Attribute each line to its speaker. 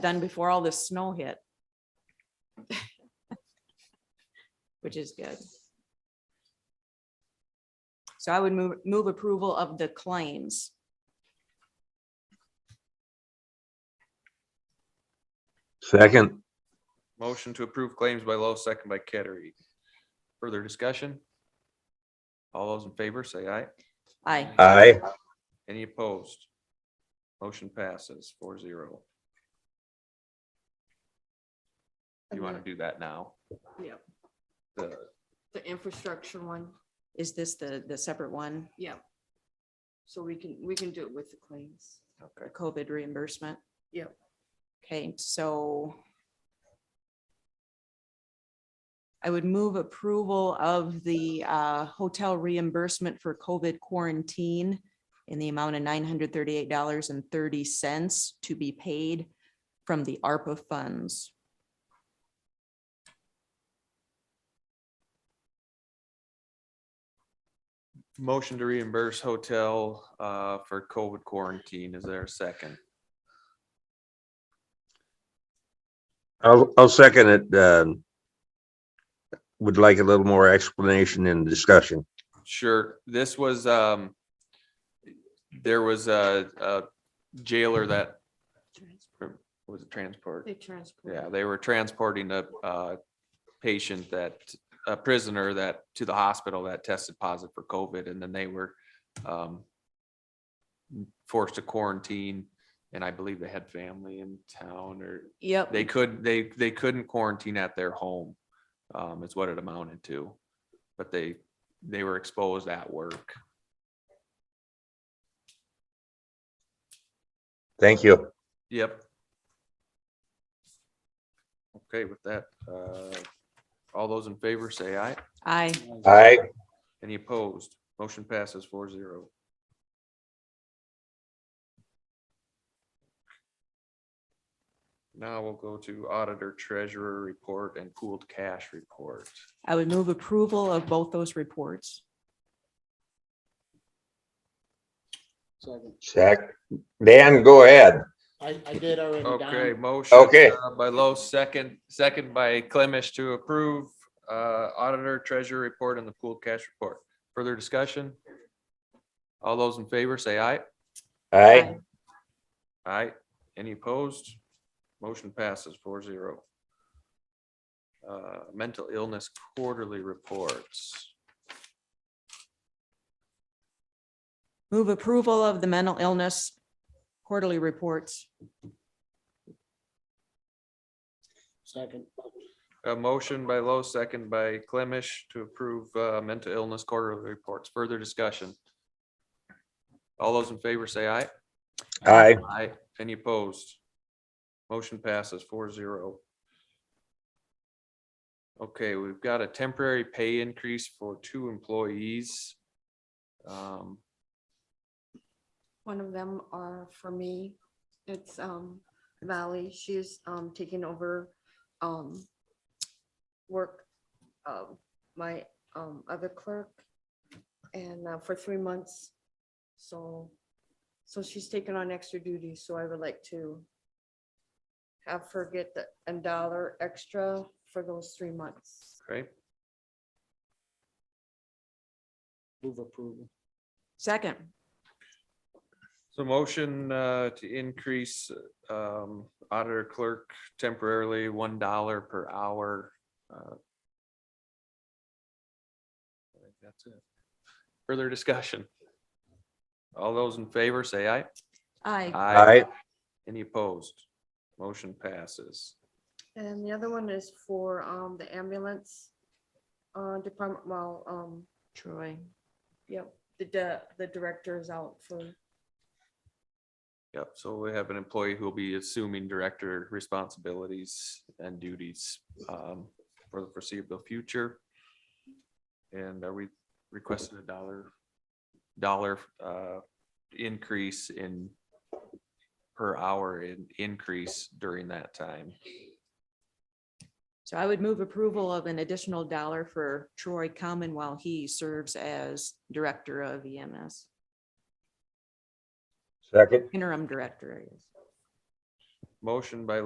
Speaker 1: done before all this snow hit. Which is good. So I would move, move approval of the claims.
Speaker 2: Second,
Speaker 3: Motion to approve claims by Lowe, second by Kettering. Further discussion? All those in favor, say aye.
Speaker 1: Aye.
Speaker 2: aye.
Speaker 3: Any opposed? Motion passes four zero. You want to do that now?
Speaker 4: Yep.
Speaker 3: The-
Speaker 4: The infrastructure one,
Speaker 1: Is this the, the separate one,
Speaker 4: yeah. So we can, we can do it with the claims.
Speaker 3: Okay,
Speaker 1: the COVID reimbursement?
Speaker 4: Yep.
Speaker 1: Okay, so I would move approval of the uh, hotel reimbursement for COVID quarantine in the amount of nine hundred thirty-eight dollars and thirty cents to be paid from the ARPA funds.
Speaker 3: motion to reimburse hotel uh, for COVID quarantine. Is there a second?
Speaker 2: I'll, I'll second it. um, Would like a little more explanation and discussion.
Speaker 3: Sure, this was, um, there was a a jailer that
Speaker 4: Trans-
Speaker 3: was a transport.
Speaker 4: They transport.
Speaker 3: Yeah, they were transporting a, uh patient that, a prisoner that, to the hospital that tested positive for COVID, and then they were um, forced to quarantine, and I believe they had family in town, or
Speaker 1: Yep.
Speaker 3: they could, they, they couldn't quarantine at their home, um, is what it amounted to. But they, they were exposed at work.
Speaker 2: Thank you.
Speaker 3: Yep. Okay, with that, uh, all those in favor say aye.
Speaker 1: Aye.
Speaker 2: Aye.
Speaker 3: Any opposed? Motion passes four zero. Now we'll go to auditor treasurer report and pooled cash report.
Speaker 1: I would move approval of both those reports.
Speaker 5: Second.
Speaker 2: Zach, Dan, go ahead.
Speaker 5: I, I did already,
Speaker 3: Okay,
Speaker 5: Don.
Speaker 3: motion.
Speaker 2: Okay.
Speaker 3: uh, By Lowe, second, second by Clemish to approve uh, auditor treasurer report and the pooled cash report. Further discussion? All those in favor, say aye.
Speaker 2: Aye.
Speaker 3: Aye. Any opposed? Motion passes four zero. Uh, mental illness quarterly reports.
Speaker 1: Move approval of the mental illness quarterly reports.
Speaker 5: Second.
Speaker 3: A motion by Lowe, second by Clemish to approve, uh, mental illness quarterly reports. Further discussion. All those in favor say aye.
Speaker 2: Aye.
Speaker 3: Aye. Any opposed? Motion passes four zero. Okay, we've got a temporary pay increase for two employees. Um,
Speaker 4: One of them are for me. It's um Valley. She's um taking over um work of my um other clerk and uh, for three months. So, so she's taking on extra duty, so I would like to have her get the a dollar extra for those three months.
Speaker 3: okay.
Speaker 5: Move approval.
Speaker 1: Second.
Speaker 3: So motion uh, to increase um, auditor clerk temporarily one dollar per hour. uh, I think That's it. Further discussion. All those in favor, say aye.
Speaker 1: Aye.
Speaker 2: Aye.
Speaker 3: Any opposed? Motion passes.
Speaker 4: And the other one is for um the ambulance uh department, well, um
Speaker 1: Troy.
Speaker 4: Yep, the, di- the director is out for,
Speaker 3: Yep, so we have an employee who will be assuming director responsibilities and duties um, for the foreseeable future. And are we requesting a dollar, dollar uh, increase in per hour in increase during that time?
Speaker 1: So I would move approval of an additional dollar for Troy Common while he serves as Director of E EMS,
Speaker 2: Second.
Speaker 1: interim director, I guess.
Speaker 3: Motion by